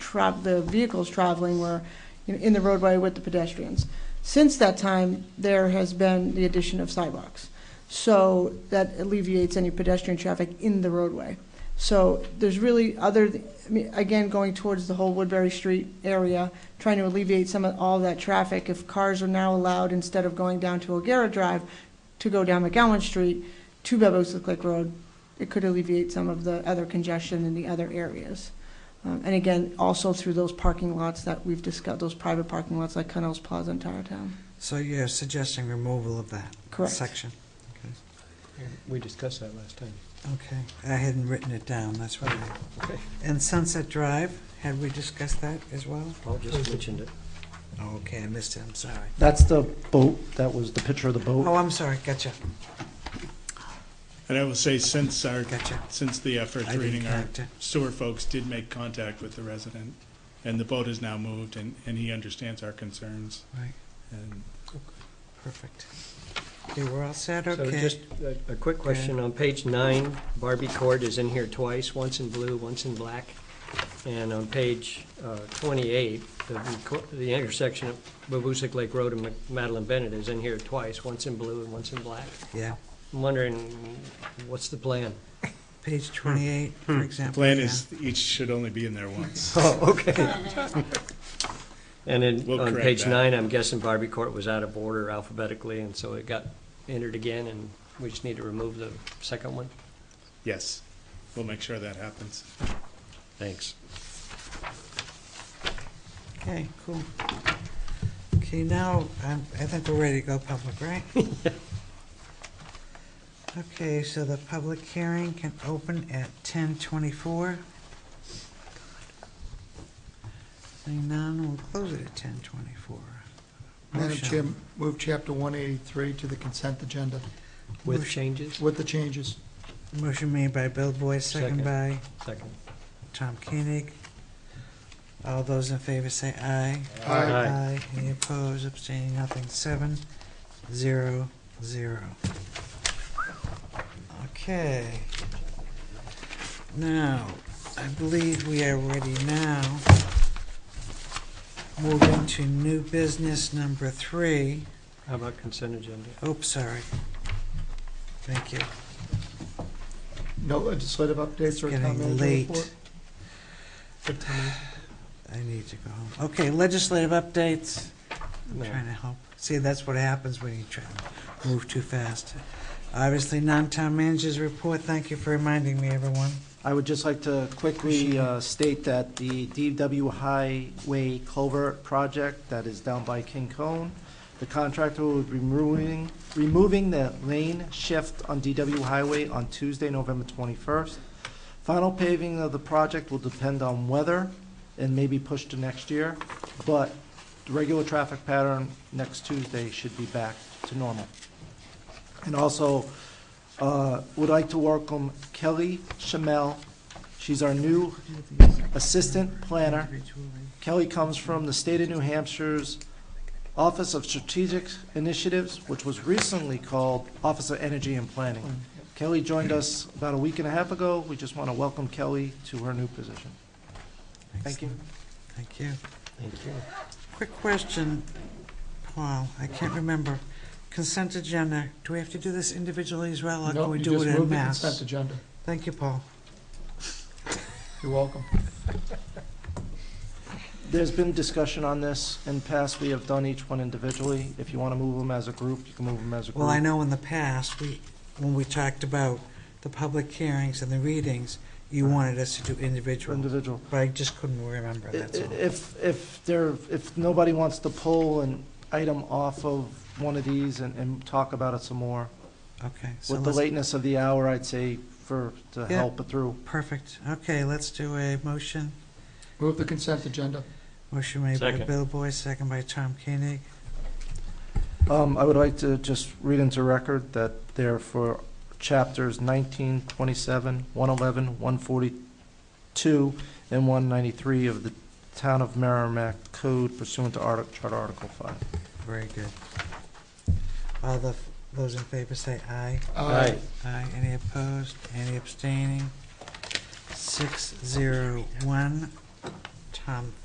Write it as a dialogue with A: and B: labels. A: tra- the vehicles traveling were you know, in the roadway with the pedestrians. Since that time, there has been the addition of sidewalks. So that alleviates any pedestrian traffic in the roadway. So there's really other, I mean, again, going towards the whole Woodbury Street area, trying to alleviate some of all that traffic. If cars are now allowed, instead of going down to O'Gara Drive, to go down McGowan Street to Babosa Click Road, it could alleviate some of the other congestion in the other areas. Um, And again, also through those parking lots that we've discussed, those private parking lots like Connell's Plaza and Tower Town.
B: So you're suggesting removal of that
A: Correct.
B: section?
C: We discussed that last time.
B: Okay, I hadn't written it down, that's why.
C: Okay.
B: And Sunset Drive, had we discussed that as well?
D: Paul just mentioned it.
B: Oh, Okay, I missed it, I'm sorry.
E: That's the boat, that was the picture of the
B: Oh,
E: boat.
B: I'm sorry, gotcha,
F: And I will say, since our,
B: gotcha.
F: since the uh,
B: I
F: first
B: didn't
F: reading, our
B: connect it.
F: sewer folks did make contact with the resident, and the boat is now moved, and, and he understands our concerns.
B: Right,
F: And
B: perfect. Okay, we're all set,
D: So
B: okay?
D: just a, a quick question, on page nine, Barbie Court is in here twice, once in blue, once in black. And on page uh, twenty-eight, the, reco- the intersection of Babusick Lake Road and Mac- Madeline Bennett is in here twice, once in blue and once in black.
B: Yeah,
D: I'm wondering, what's the plan?
B: page twenty-eight, for
F: Hmm. the
B: example.
F: plan
B: yeah.
F: is, each should only be in there once.
D: Oh, okay. And then
F: We'll
D: on
F: correct
D: page
F: that.
D: nine, I'm guessing Barbie Court was out of order alphabetically, and so it got entered again, and we just need to remove the second one?
F: Yes, we'll make sure that happens.
D: Thanks.
B: Okay, cool. Okay, now, um, I think we're ready to go public, right? Okay, so the public hearing can open at ten twenty-four. Seeing none, we'll close it at ten twenty-four.
G: Madam Chair, move Chapter 183 to the consent agenda
D: With changes?
G: with the changes.
B: Motion made by Bill Boyd, second
D: Second.
B: by
D: Second.
B: Tom Koenig. All those in favor say aye.
D: Aye.
B: Any opposed, abstaining, nothing, seven, zero, zero. Okay. Now, I believe we are ready now. Moving to new business number three.
D: How about consent agenda?
B: Oops, sorry. Thank you.
G: No legislative
B: It's
G: updates or town
B: getting
G: manager
B: late.
G: report?
B: I need to go home. Okay, legislative updates. I'm
D: No.
B: trying to help. See, that's what happens when you try to move too fast. Obviously, non-town managers report. Thank you for reminding me, everyone.
E: I would just like to quickly uh, state that the DW Highway Culvert Project that is down by King Cone, the contractor will be removing, removing the lane shift on DW Highway on Tuesday, November 21st. Final paving of the project will depend on weather and may be pushed to next year, but the regular traffic pattern next Tuesday should be back to normal. And also, uh, would like to welcome Kelly Shamel. She's our new assistant planner. Kelly comes from the state of New Hampshire's Office of Strategic Initiatives, which was recently called Office of Energy and Planning. Kelly joined us about a week and a half ago. We just want to welcome Kelly to her new position. Thank you.
B: Thank you.
D: Thank you.
B: Quick question, Paul. I can't remember. Consent agenda. Do we have to do this individually as well, or
G: No,
B: can we
G: you
B: do
G: just
B: it
G: move
B: en
G: the Consent
B: masse?
G: agenda.
B: Thank you, Paul.
G: You're welcome.
E: There's been discussion on this. In the past, we have done each one individually. If you want to move them as a group, you can move them as a group.
B: Well, I know in the past, we, when we talked about the public hearings and the readings, you wanted us to do individual,
E: Individual.
B: but I just couldn't remember,
E: I-
B: that's all.
E: If, if there, if nobody wants to pull an item off of one of these and, and talk about it some more,
B: Okay. so
E: with the
B: let's-
E: lateness of the hour, I'd say for, to
B: Yeah.
E: help it through.
B: Perfect. Okay, let's do a motion.
G: Move the consent agenda.
B: Motion made by
D: Second.
B: Bill Boyce, second by Tom Koenig.
E: Um, I would like to just read into record that they're for chapters 19, 27, 111, 142, and 193 of the Town of Merrimack Code pursuant to Artic, Charter Article 5.
B: Very good. All the, those in favor say aye.
G: Aye.
B: Aye. Any opposed? Any abstaining? Six, zero, one. Tom